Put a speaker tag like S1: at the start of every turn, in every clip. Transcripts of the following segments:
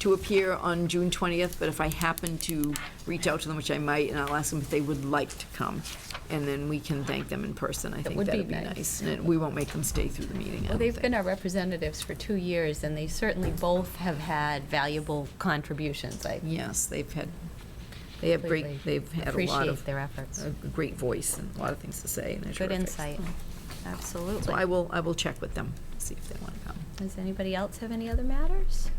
S1: to appear on June 20th, but if I happen to reach out to them, which I might, and I'll ask them if they would like to come, and then we can thank them in person. I think
S2: would
S1: that'd
S2: be
S1: be
S2: nice.
S1: nice. And it- we won't make them stay through the meeting, I
S2: Well,
S1: don't
S2: they've
S1: think.
S2: been our representatives for two years, and they certainly both have had valuable contributions. I
S1: Yes, they've had, they have great,
S2: Completely
S1: they've had a lot
S2: appreciate
S1: of,
S2: their efforts.
S1: a great voice and a lot of things to say, and they're
S2: Good
S1: terrific.
S2: insight, absolutely.
S1: So I will, I will check with them, see if they want to come.
S2: Does anybody else have any other matters?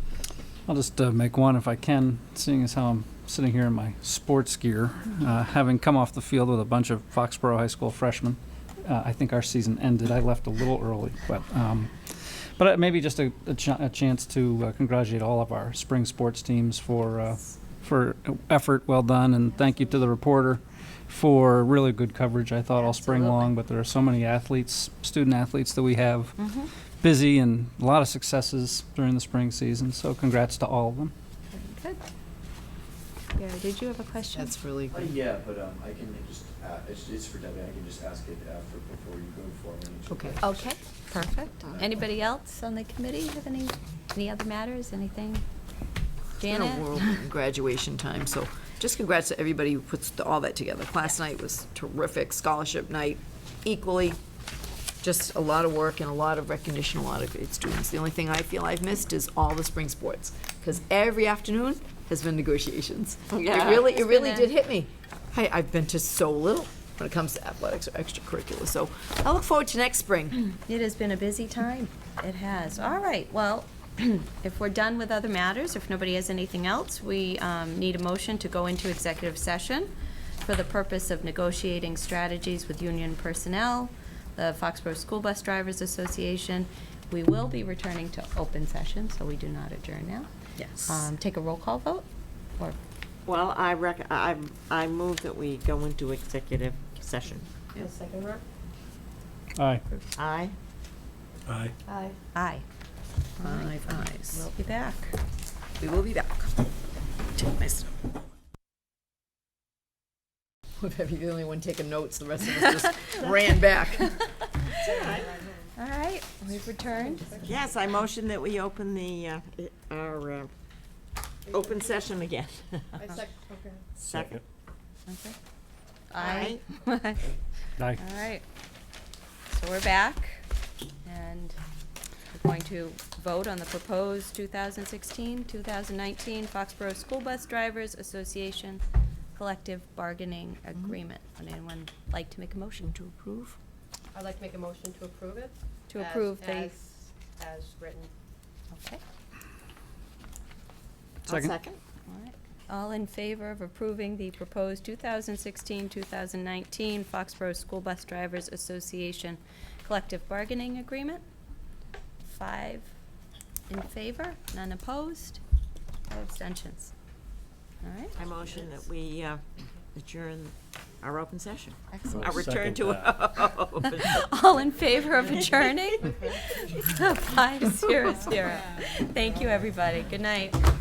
S3: I'll just uh, make one if I can, seeing as how I'm sitting here in my sports gear, uh, having come off the field with a bunch of Foxborough High School freshmen. Uh, I think our season ended. I left a little early, but um, but uh, maybe just a, a, ch- a chance to uh, congratulate all of our spring sports teams for uh, for effort well done, and thank you to the reporter for really good coverage. I thought all spring
S2: Absolutely.
S3: long, but there are so many athletes, student athletes that we have
S1: Mm-hmm.
S3: busy and a lot of successes during the spring season. So congrats to all of them.
S2: Good. Gary, did you have a question?
S1: That's really
S4: Uh,
S1: good.
S4: Yeah, but um, I can just, uh, it's it's for Debbie, I can just ask it after, before you go forward. and she'll-
S1: Okay.
S2: Okay, perfect. Anybody else on the committee have any, any other matters, anything?
S1: been a
S2: Janet?
S1: whirlwind in graduation time, so just congrats to everybody who puts the- all that together. Class night was terrific, scholarship night equally, just a lot of work and a lot of recognition, a lot of great students. The only thing I feel I've missed is all the spring sports, because every afternoon has been negotiations. It really, it
S2: It's
S1: really
S2: been a-
S1: did hit me. Hey, I've been to so little when it comes to athletics or extracurricular, so I look forward to next spring.
S2: It has been a busy time. It has. All right, well, if we're done with other matters, if nobody has anything else, we um, need a motion to go into executive session for the purpose of negotiating strategies with union personnel, the Foxborough School Bus Drivers Association. We will be returning to open session, so we do not adjourn now.
S1: Yes.
S2: Um, Take a roll call vote, or
S5: Well, I rec, I, I move that we go into executive session.
S3: Aye.
S5: Aye?
S2: aye.
S1: Five eyes.
S2: We'll be back.
S1: We will be back. Take my stuff. Whatever, you're the only one taking notes, the rest of us just ran back.
S2: All right, we've returned.
S5: Yes, I motion that we open the, uh, i- our, uh, open session again. Second. Aye.
S2: Aye.
S3: Aye.
S2: All right. So we're back, and we're going to vote on the proposed 2016-2019 Foxborough School Bus Drivers Association Collective Bargaining Agreement. Would anyone like to make a motion Mm-hmm. to approve?
S6: I'd like to make a motion to approve it.
S2: To
S6: as-
S2: approve the-
S6: As, as written.
S2: Okay.
S5: I'll
S3: Second.
S2: All right. All in favor of approving the proposed 2016-2019 Foxborough School Bus Drivers Association Collective Bargaining Agreement? Five in favor, none opposed, no abstentions. All right,
S5: I motion that we uh, adjourn our open session.
S2: excellent.
S5: Our return to. open.
S2: All in favor of adjourning? Five, zero, zero. Thank you, everybody. Good night.